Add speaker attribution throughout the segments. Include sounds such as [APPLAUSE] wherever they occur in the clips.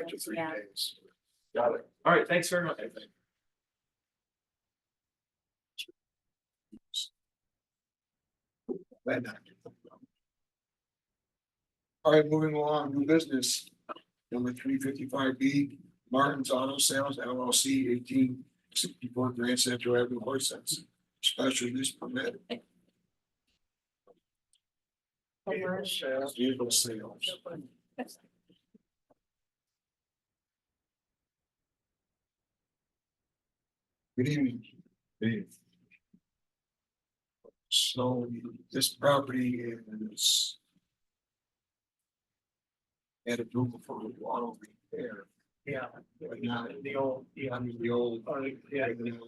Speaker 1: after three
Speaker 2: Yeah.
Speaker 1: days.
Speaker 3: Got it. All right, thanks very much.
Speaker 1: Glad not to. All right, moving along, new business, number three fifty-five B, Martin's Auto Sales LLC eighteen sixty-four Grand Central Avenue, Horses. Special use permit, vehicle sales, vehicle sales. Good evening. So this property is. At a Google for auto repair,
Speaker 4: Yeah,
Speaker 1: but not
Speaker 4: the old, yeah,
Speaker 1: under the old.
Speaker 4: or, yeah. the-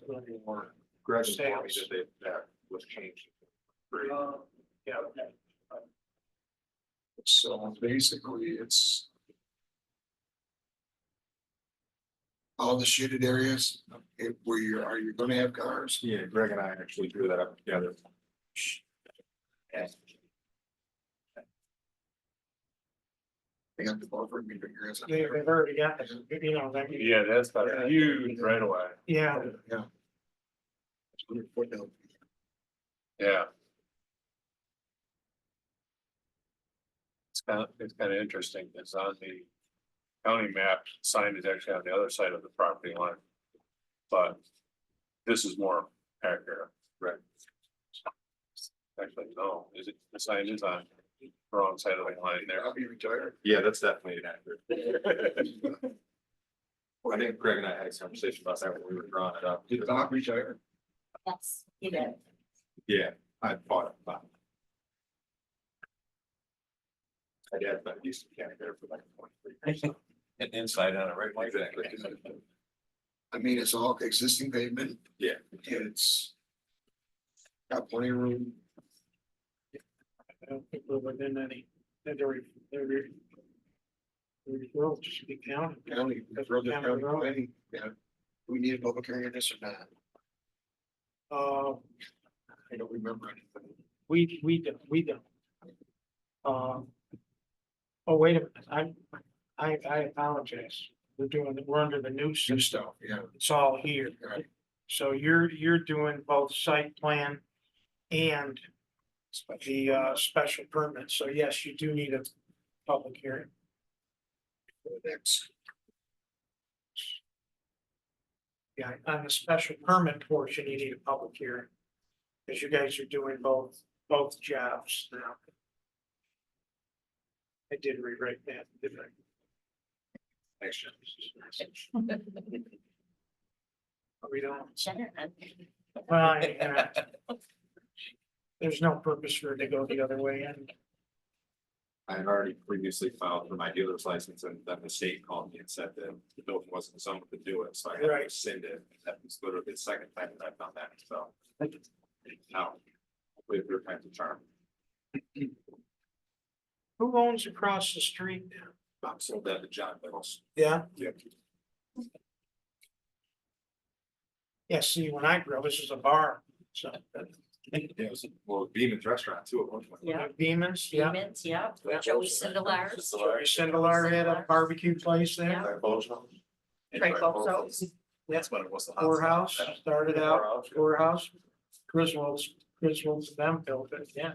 Speaker 1: Or
Speaker 3: Greg
Speaker 4: informed me that
Speaker 3: that was changed.
Speaker 4: uh, Yeah, okay.
Speaker 1: So basically, it's. All the shaded areas, if where you're, are you gonna have cars?
Speaker 3: Yeah, Greg and I actually drew that up together.
Speaker 1: They got the buffer, you figure it's-
Speaker 4: They- They've already got, this, you know, that,
Speaker 3: Yeah, that's
Speaker 1: about a
Speaker 3: huge right away.
Speaker 4: yeah,
Speaker 1: Yeah. It's under foot now.
Speaker 3: Yeah. It's kind of, it's kind of interesting, because on the county map, sign is actually on the other side of the property line. But this is more accurate. Right. Actually, no, is it, the sign is on the wrong side of the line there.
Speaker 1: I'll be retired.
Speaker 5: Yeah, that's definitely inaccurate. I think Greg and I had a conversation about that when we were drawing it up.
Speaker 1: Did Bob retire?
Speaker 2: Yes, you did.
Speaker 5: Yeah, I bought it. but- My dad, but used to camp there for like twenty-three years.
Speaker 3: An insight on it, right?
Speaker 5: Exactly.
Speaker 1: I mean, it's all existing pavement.
Speaker 5: Yeah.
Speaker 1: It's. Got plenty of room.
Speaker 4: I don't think we're within any, that they're, they're. The world should be counted.
Speaker 1: County, throw the county, away, yeah. We need a public hearing on this or not?
Speaker 4: Uh,
Speaker 1: I don't remember anything.
Speaker 4: we, we don't, we don't. Uh. Oh, wait a minute, I, I, I apologize, we're doing, we're under the new
Speaker 1: New
Speaker 4: system,
Speaker 1: stuff, yeah.
Speaker 4: it's all here.
Speaker 1: Right.
Speaker 4: So you're, you're doing both site plan and the uh special permit, so yes, you do need a public hearing.
Speaker 1: Next,
Speaker 4: Yeah, on the special permit portion, you need a public hearing. Cause you guys are doing both, both jobs now. I did rewrite that, didn't I? But Oh, We don't, well, I- yeah. There's no purpose for it to go the other way and
Speaker 5: I had already previously filed for my dealer's license and then the state called me and said that the building wasn't zoned to do it, so I had to
Speaker 4: Right.
Speaker 5: rescind it. That was literally the second time that I've done that, so. Now, with your kind of charm.
Speaker 4: who owns across the street now?
Speaker 5: I'm sold that to John Mills.
Speaker 4: Yeah.
Speaker 5: Yeah.
Speaker 4: Yeah, see, when I grew up, this was a bar, so. uh,
Speaker 5: Yeah, it was, well, Beeman's Restaurant too at one point.
Speaker 2: Yeah.
Speaker 4: Beeman's, yeah.
Speaker 2: Demons, yeah. Joey Sindelar's.
Speaker 4: Joey Sindelar had a barbecue place there.
Speaker 5: By Bozo. And
Speaker 2: Frank
Speaker 5: by
Speaker 2: Bozo.
Speaker 5: Bozo's. That's when it was the. hot
Speaker 4: Courthouse
Speaker 5: spot.
Speaker 4: started out,
Speaker 5: Poorhouse, yeah.
Speaker 4: courthouse, Griswold's, Griswold's them built it, yeah.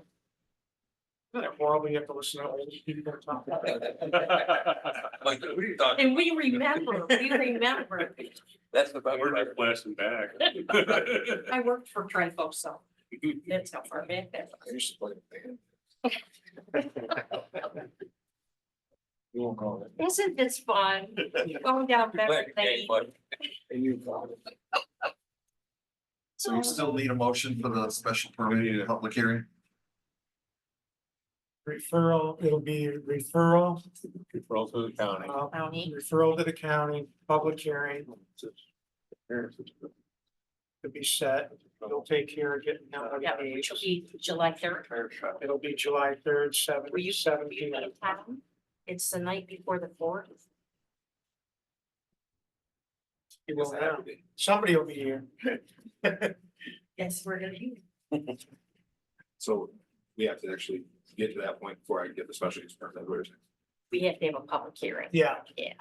Speaker 4: Isn't it horrible you have to listen to all these people talk about it?
Speaker 2: [LAUGHS]
Speaker 6: Like, who are you talking?
Speaker 2: And we remember, we remember.
Speaker 6: That's the.
Speaker 3: We're just blasting
Speaker 2: [LAUGHS]
Speaker 3: back.
Speaker 2: I worked for Trifoso. so that's how far back that
Speaker 1: I
Speaker 2: was.
Speaker 1: used to play in a band. You won't call it.
Speaker 2: Isn't this fun? Going down memory lane.
Speaker 1: And you call it.
Speaker 5: So you still need a motion for the special permit and public hearing?
Speaker 4: Referral, it'll be referral,
Speaker 3: Roll through the county.
Speaker 4: uh,
Speaker 2: County.
Speaker 4: referral to the county, public hearing to be set. It'll take care of getting out of
Speaker 2: Yeah,
Speaker 4: the
Speaker 2: which will be July third.
Speaker 4: It'll be July third,
Speaker 2: Were you, were you
Speaker 4: seventeen, seventeen.
Speaker 2: in town? It's the night before the fourth.
Speaker 4: You will know. Somebody will be here.
Speaker 2: Yes, we're gonna be.
Speaker 5: So we have to actually get to that point before I get the special use permit. what you're saying.
Speaker 2: We have to have a public hearing.
Speaker 4: Yeah.
Speaker 2: Yeah.